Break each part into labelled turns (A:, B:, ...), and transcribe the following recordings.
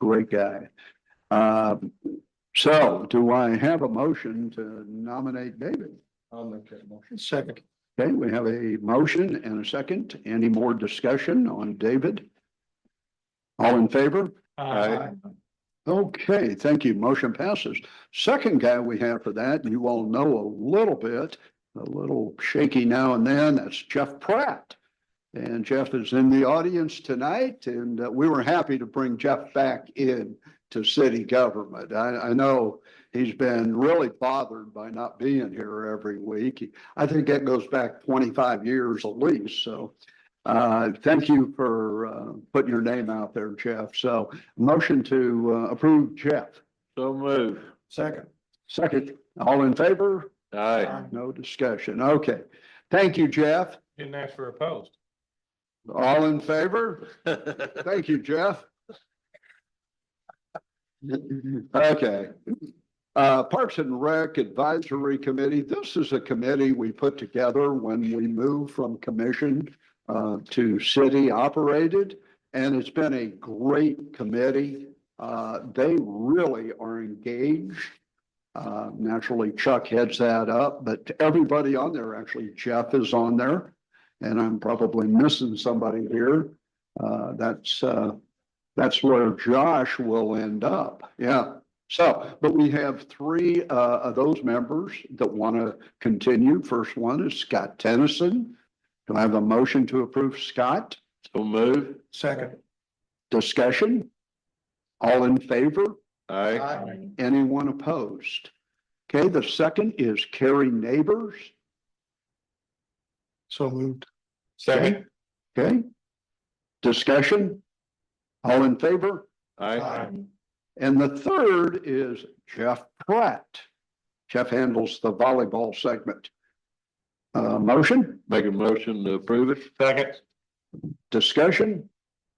A: great guy. Um, so do I have a motion to nominate David?
B: I'll make that motion. Second.
A: Okay, we have a motion and a second. Any more discussion on David? All in favor? Aye. Okay, thank you. Motion passes. Second guy we have for that, you all know a little bit, a little shaky now and then, that's Jeff Pratt. And Jeff is in the audience tonight and uh, we were happy to bring Jeff back in to city government. I, I know he's been really bothered by not being here every week. I think that goes back twenty-five years at least, so. Uh, thank you for, uh, putting your name out there, Jeff. So Motion to uh, approve Jeff.
C: So move.
B: Second.
A: Second, all in favor?
C: Aye.
A: No discussion. Okay. Thank you, Jeff.
B: Didn't ask for a post.
A: All in favor? Thank you, Jeff. Okay. Uh, Parks and Rec Advisory Committee, this is a committee we put together when we moved from commission uh, to city operated. And it's been a great committee. Uh, they really are engaged. Uh, naturally Chuck heads that up, but everybody on there, actually Jeff is on there. And I'm probably missing somebody here. Uh, that's, uh, that's where Josh will end up. Yeah. So, but we have three, uh, of those members that want to continue. First one is Scott Tennyson. Do I have a motion to approve Scott?
C: So move.
B: Second.
A: Discussion? All in favor?
C: Aye.
A: Anyone opposed? Okay, the second is Carrie Neighbors.
B: So moved.
C: Second.
A: Okay? Discussion? All in favor?
C: Aye.
A: And the third is Jeff Pratt. Jeff handles the volleyball segment. Uh, motion,
C: Make a motion to approve it.
B: Second.
A: discussion,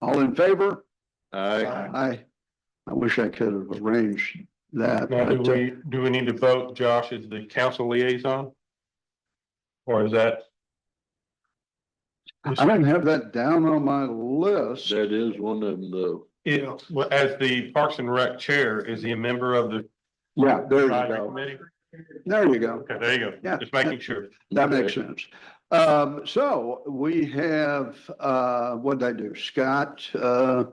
A: all in favor?
C: Aye.
B: Aye.
A: I, I wish I could have arranged that.
D: Now, do
A: but, uh,
D: we, do we need to vote Josh as the council liaison? Or is that,
A: I didn't have that down on my list.
C: That is one of them though.
D: it, well, as the Parks and Rec Chair, is he a member of the
A: Yeah, there you
D: advisory
A: go.
D: committee?
A: There you go.
D: Okay, there you
A: Yeah.
D: go. Just making sure.
A: That makes sense. Um, so we have, uh, what did I do? Scott, uh,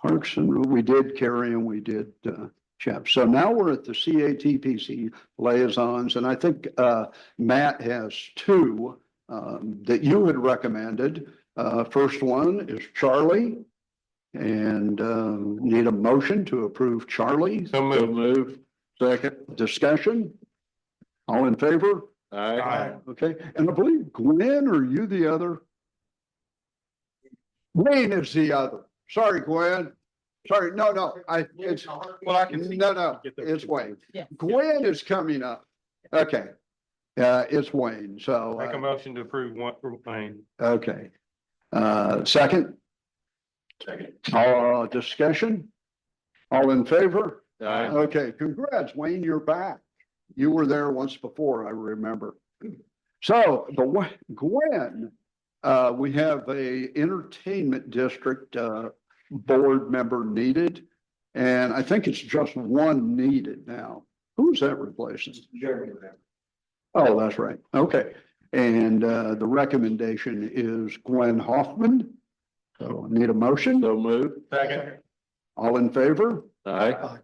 A: Parks and we did Kerry and we did, uh, Jeff. So now we're at the CATPC liaisons and I think, uh, Matt has two, um, that you had recommended. Uh, first one is Charlie. And, um, need a motion to approve Charlie.
D: So
C: So
D: moved.
C: move. Second.
A: Discussion? All in favor?
C: Aye.
A: Okay, and I believe Gwen, are you the other? Wayne is the other. Sorry, Gwen. Sorry, no, no, I, it's,
D: Well, I can see.
A: no, no, it's Wayne. Gwen is coming up. Okay. Uh, it's Wayne, so,
D: Make a
A: uh,
D: motion to approve one for Wayne.
A: okay. Uh, second,
D: Second.
A: uh, discussion? All in favor?
C: Aye.
A: Okay, congrats, Wayne, you're back. You were there once before, I remember. So, the wa- Gwen, uh, we have a entertainment district, uh, board member needed. And I think it's just one needed now. Who's that replacing? Oh, that's right. Okay. And, uh, the recommendation is Gwen Hoffman. So I need a motion.
C: So move.
D: Second.
A: All in favor?
C: Aye.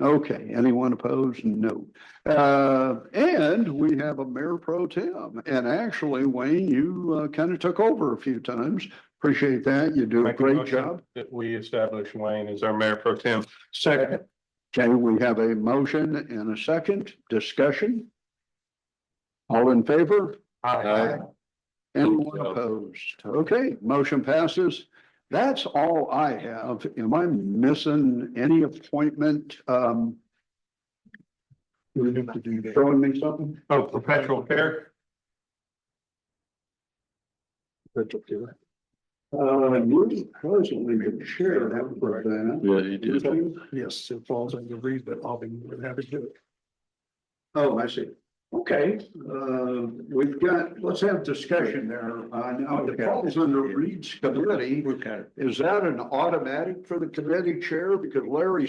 A: Okay, anyone opposed? No. Uh, and we have a mayor pro tem. And actually, Wayne, you uh, kind of took over a few times. Appreciate that. You do a
D: Make a
A: great
D: motion
A: job.
D: That we establish Wayne as our mayor pro tem. Second.
A: Okay, we have a motion and a second discussion. All in favor?
C: Aye.
A: Anyone
C: Yeah.
A: opposed? Okay, motion passes. That's all I have. Am I missing any appointment? Um,
B: We have to do that.
A: showing me something?
D: Oh, perpetual care.
A: Uh, you presently the chair that for that.
C: Yeah, you did.
B: Yes, it falls under read, but I'll be more than happy to do it.
A: Oh, I see. Okay, uh, we've got, let's have discussion there. Uh, now the falls under Reed's committee.
B: We've got it.
A: Is that an automatic for the committee chair? Because Larry